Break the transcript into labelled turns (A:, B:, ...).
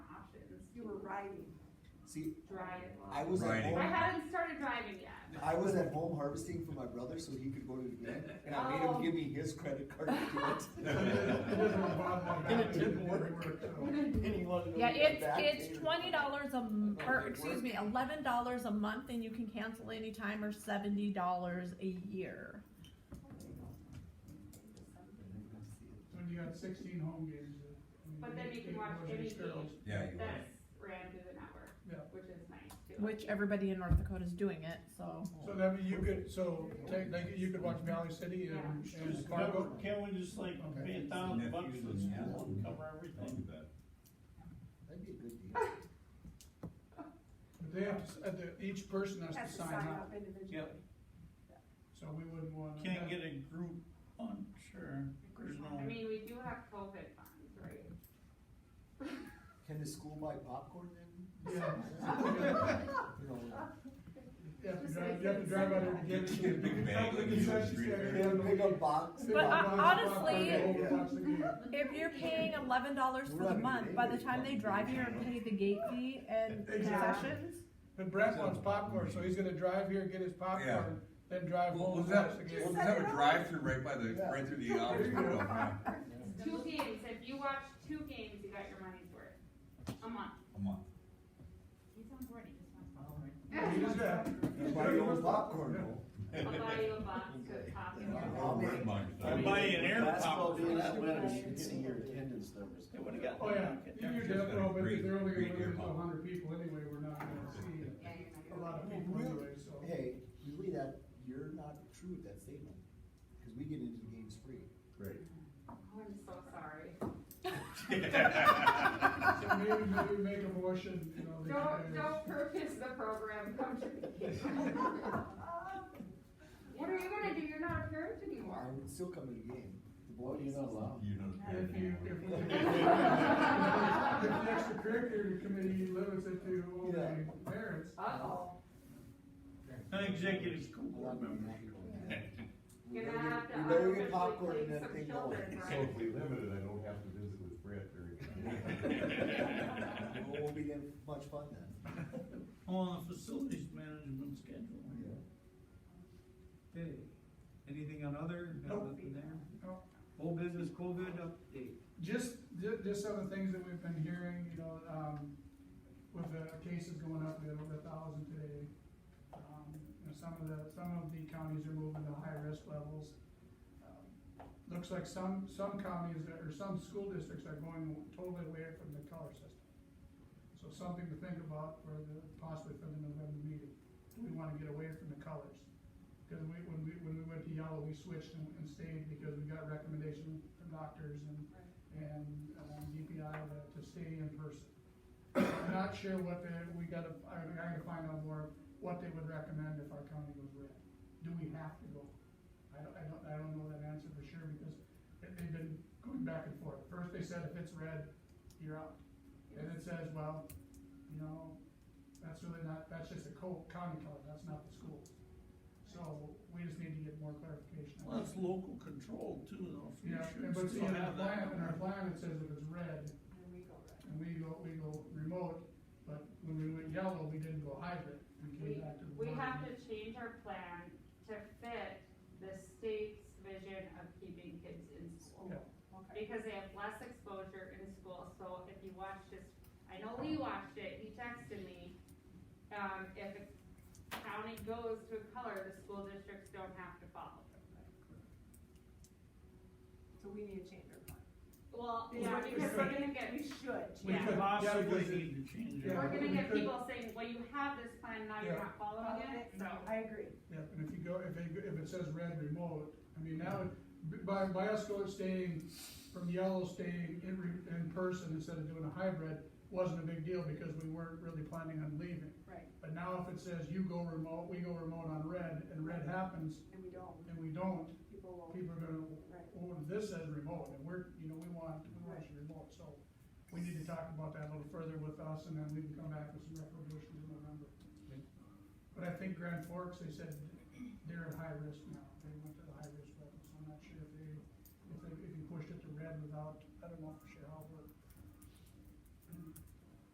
A: driving,
B: See,
A: drive.
B: I was at
C: Riding.
A: I
B: home,
A: haven't started driving yet.
B: I was at home harvesting for my brother so he could go to the game, and I made
D: Oh.
B: him give me his credit card to do
E: And it didn't work.
B: it.
D: Yeah, it's, it's twenty dollars a, m- or, excuse me, eleven dollars a month and you can cancel anytime or seventy dollars a year.
E: When you got sixteen home games. uh, I
A: But
E: mean,
A: then you can watch
E: those
A: any
E: girls.
A: game.
C: Yeah, you
A: That's
C: would.
A: ran through the network,
E: Yeah,
A: which is nice too.
D: Which everybody in North Dakota is doing it, so.
E: so that mean you could, so, take, like, you could watch Valley City and, and
F: Just
E: Fargo.
F: cover- Can we just like
E: Okay.
F: pay a thousand bucks for the
C: Nephews and-
F: school and cover everything?
B: That'd be a good deal.
E: But they have to, s- uh, the, each person has to sign up,
A: individually.
F: Yep.
E: so we wouldn't wanna.
F: Can't get a group on, sure, there's no.
A: I mean, we do have COVID funds, right?
B: Can the school buy popcorn then?
E: Yeah.
B: You know,
E: You have to drive, you have to drive out there to get it.
C: Get a big bag like you do at the street fair.
B: They have a big box.
D: But, uh, honestly-
E: honestly.
D: If you're paying eleven dollars for the month, by the time they drive here and pay the gate fee and concessions,
E: But Brett wants popcorn, so he's gonna drive here, get his popcorn, then drive
C: We'll,
E: home.
C: we'll
E: and
C: just have,
E: watch the
C: we'll
E: game.
C: just have a drive-through right by the, right through the office window, huh?
A: Two games, if you watch two games, you got your money's worth, a month.
C: a month.
A: He's on board, he just wants
E: He just got-
B: You Buy your own popcorn though.
A: I'll buy you a box of
B: I'll
A: popcorn.
B: make-
F: I'm buying an air
G: Basketball
F: popper for
G: games,
F: that
G: you gotta
F: winner.
G: See your attendance numbers.
F: They would've got.
E: Oh, yeah, you could definitely, but
C: Great-
E: they're only
C: great
E: gonna
C: ear
E: lose a
C: pop.
E: hundred people anyway, we're not gonna see
A: Yeah, you're not
E: a
A: gonna-
E: lot of people anyway, so.
B: Hey, really that, you're not true with that statement, cause we get into the games free.
A: Oh, I'm so sorry.
E: So maybe, maybe make a motion, you know. that
A: Don't,
E: you
A: don't purchase the program, come to the game. What are you gonna do? You're not a parent
B: I
A: anymore.
B: would still come to the game. The
G: What do
B: boys.
G: you not allow?
C: You know.
E: guys- If you, if we- if the extracurricular committee limits it to only parents,
A: Uh-oh,
F: An executive school board
B: Not
F: member.
B: gonna-
A: you're gonna have to
B: We better get popcorn
A: unofficially
B: and
A: take
B: that
A: some
B: thing going.
A: children,
H: So
A: right?
H: if we limit it, I don't have to visit with Brett during.
B: It won't be that much fun then.
F: On the facilities management schedule.
I: Okay, anything on other, got
E: Nope.
I: nothing there?
E: Nope.
I: Whole business COVID update,
E: just, ju- just some of the things that we've been hearing, you know, um, with the cases going up, we had over a thousand today. Um, you know, some of the, some of the counties are moving to high risk levels. Um, Looks like some, some counties are- or some school districts are going totally away from the color system. So something to think about for the, possibly for the November meeting. We wanna get away from the colors. Cause we, when we, when we went to yellow, we switched and and stayed because we got recommendation from doctors and and um, DPI to, to stay in person. I'm not sure what they, we gotta, I, I gotta find out more, what they would recommend if our county was red. Do we have to go? I don't, I don't, I don't know that answer for sure because they- they've been going back and forth. First they said if it's red, you're out. And it says, well, you know, that's really not, that's just a co- county color, that's not the school. So we just need to get more clarification.
F: Well, that's local control too, though. if you
E: Yeah,
F: should
E: and but see,
F: still
E: in our
F: have
E: plan,
F: that.
E: in our plan, it says if it's red,
A: And we go right.
E: and we go, we go remote, but when we went yellow, we didn't go hybrid, we
A: We,
E: came back to the.
A: we
E: board.
A: have to change our plan to fit the state's vision of keeping kids in school.
E: Yeah.
A: Because they have less exposure in school, so if you watch this, I know Lee watched it, he texted me. Um, if a county goes to a color, the school districts don't have to follow.
J: So we need to change our plan.
A: Well,
J: Is
A: yeah,
J: what you're
A: because we're
J: saying.
A: gonna get,
J: We should.
F: We
A: yeah,
E: could-
F: possibly
E: because it-
F: need to change
E: yeah.
F: it.
A: we're
E: we
A: gonna get
E: could-
A: people saying, well, you have this plan, now you're
E: Yeah.
A: not following it, so.
J: I agree.
E: Yeah, and if you go, if it, if it says red remote, I mean, now, by, by us going staying from yellow, staying in, re- in person instead of doing a hybrid, wasn't a big deal because we weren't really planning on leaving.
J: Right.
E: But now if it says you go remote, we go remote on red, and red happens,
J: And we don't,
E: and we don't,
J: people will.
E: people are gonna,
J: Right.
E: well, this says remote, and we're, you know, we want, we want you remote, so we need to talk about that a little further with us, and then we can come back with some recommendations in November. But I think Grand Forks, they said they're at high risk now, they went to the high risk level, so I'm not sure if they, if they, if you pushed it to red without